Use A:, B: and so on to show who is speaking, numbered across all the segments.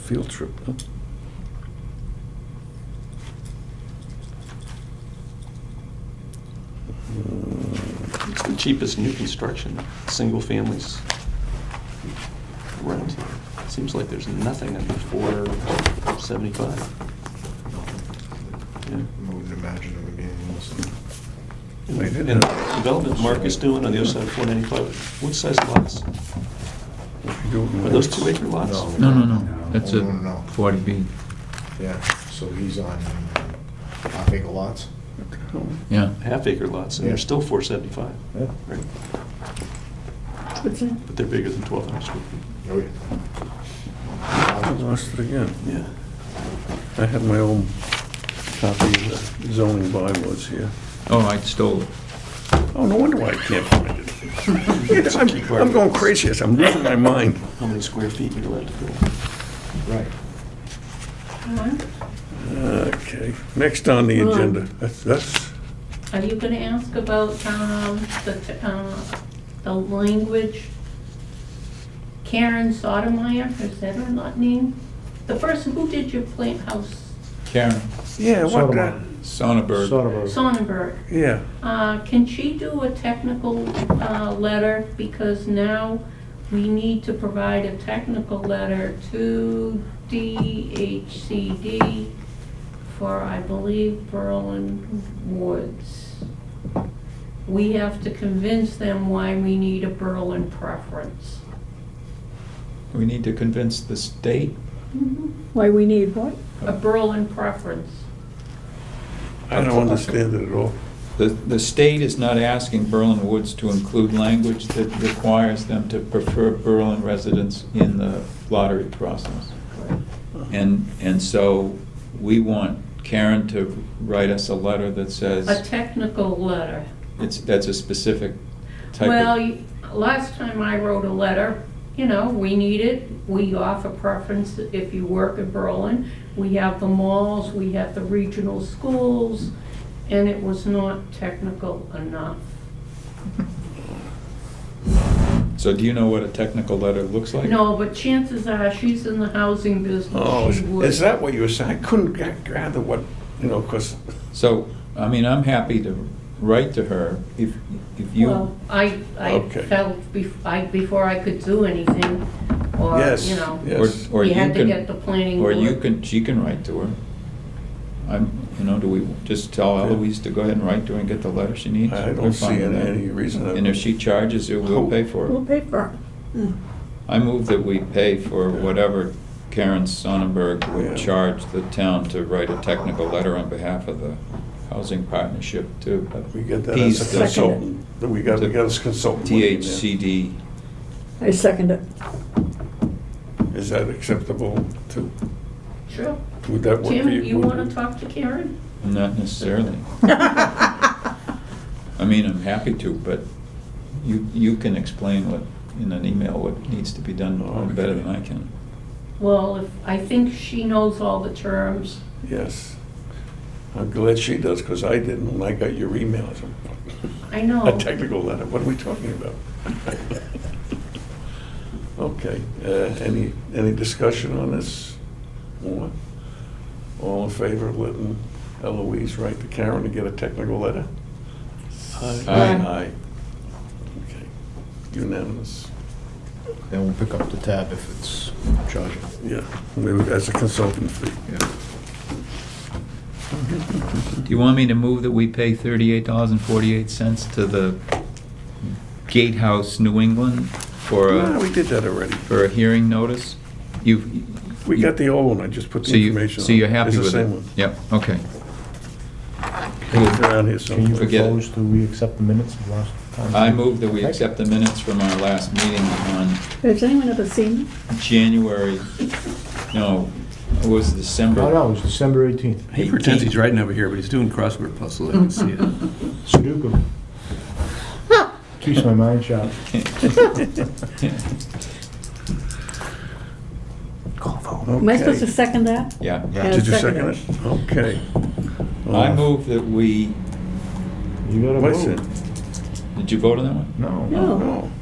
A: field trip, huh?
B: It's the cheapest new construction, single families rent. Seems like there's nothing under four seventy-five. Yeah.
C: I wouldn't imagine it would be anything else.
A: They did
B: And
A: that.
B: development Mark is doing on the other side of four ninety-five, what size lots?
A: If you do it in
B: Are those
A: lots-
B: two acre lots?
D: No, no, no, that's a
C: No, no, no.
D: 40B,
C: Yeah, so he's on half acre lots?
D: yeah.
B: Half acre lots, and they're still four seventy-five,
C: Yeah.
B: right? But they're bigger than twelve hundred square feet.
C: Oh, yeah.
A: I lost it again.
B: Yeah.
A: I had my own copy of the zoning bylaws here.
D: Oh, I stole it.
A: Oh, no wonder why I can't find it. I'm- I'm going crazy, yes, I'm losing my mind.
B: How many square feet you're allowed to build?
C: Right.
E: Uh-huh.
A: Okay, next on the agenda, that's, that's,
E: Are you gonna ask about, um, the, uh, the language? Karen Sotomayor, is that her lot name? The person who did your plant house,
D: Karen
A: yeah, what, the-
D: Sonnenberg,
E: Sonnenberg.
A: yeah.
E: Uh, can she do a technical, uh, letter? Because now we need to provide a technical letter to DHCD for, I believe, Berlin Woods. We have to convince them why we need a Berlin preference.
D: we need to convince the state.
F: Why we need what?
E: A Berlin preference.
A: I don't understand it at all.
D: The, the state is not asking Berlin Woods to include language that requires them to prefer Berlin residents in the lottery process. And, and so we want Karen to write us a letter that
E: A
D: says,
E: technical letter.
D: it's, that's a specific type of.
E: Well, you- last time I wrote a letter, you know, we need it, we offer preference if you work in Berlin. We have the malls, we have the regional schools, and it was not technical enough.
D: So do you know what a technical letter looks like?
E: No, but chances are, she's in the housing
A: Oh,
E: business,
A: is
E: she would.
A: is that what you were saying? I couldn't ga- gather what, you know, because,
D: So, I mean, I'm happy to write to her if, if
E: Well,
D: you,
E: I, I
A: Okay.
E: felt, bef- I, before I could do anything, or,
A: yes,
E: you know.
D: or,
A: yes.
D: or
E: You
D: you
E: had to get the
D: can,
E: planning
D: or
E: board.
D: you can, she can write to her. I'm, you know, do we just tell Eloise to go ahead and write to her and get the letter she needs?
A: I
D: We're
A: don't
D: fine
A: see
D: with that.
A: any reason. that-
D: And if she charges it, we'll pay for
F: Little
D: it.
F: paper.
D: I move that we pay for whatever Karen Sonnenberg
A: Yeah.
D: would charge the town to write a technical letter on behalf of the housing partnership to
A: We get that as
D: appease
A: a
D: the
A: consultant, that we got, we got as consultant. money in there.
D: THCD.
F: I second it.
A: Is that acceptable to,
E: Sure.
A: would that work for you?
E: Tim, you wanna talk to Karen?
D: Not necessarily. I mean, I'm happy to, but you, you can explain what, in an email, what needs to be done probably better than I can.
E: Well, if, I think she knows all the terms.
A: Yes. I'm glad she does, because I didn't, when I got your email, I said,
E: I know.
A: a technical letter, what are we talking about? Okay, uh, any, any discussion on this? More? All in favor of letting Eloise write to Karen to get a technical letter?
D: Aye.
A: Aye. Okay, unanimous.
C: Then we'll pick up the tab if it's charging.
A: Yeah, we would- as a consultant fee.
D: Do you want me to move that we pay thirty-eight dollars and forty-eight cents to the Gatehouse New England for
A: No,
D: a,
A: we did that already.
D: for a hearing notice? You've.
A: We got the old one, I just put
D: So
A: the
D: you,
A: information on.
D: so you're happy with it?
A: It's the same one.
D: Yep, okay.
A: It's around here
C: Can you
A: somewhere.
D: Forget it.
C: propose that we accept the minutes of last time?
D: I move that we
C: Okay.
D: accept the minutes from our last meeting on
F: Has anyone ever seen?
D: January, no, it was December.
C: Oh, No, no, it's December 18th.
G: He pretends he's writing over here, but he's doing crossword puzzles. I can see it.
C: Sudoku. Keeps my mind sharp.
F: Am I
A: Oh, Okay.
F: supposed to second that?
D: Yeah.
F: Yeah,
A: Did you second
F: second
A: it? Okay.
D: I move that we,
C: You gotta
A: What's
C: vote.
A: it?
D: did you vote on that one?
C: No.
A: Oh.
F: No.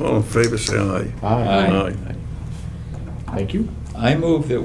A: No. All in favor, say aye.
C: Aye.
D: Aye.
A: Aye.
C: Thank you.
D: I- I move that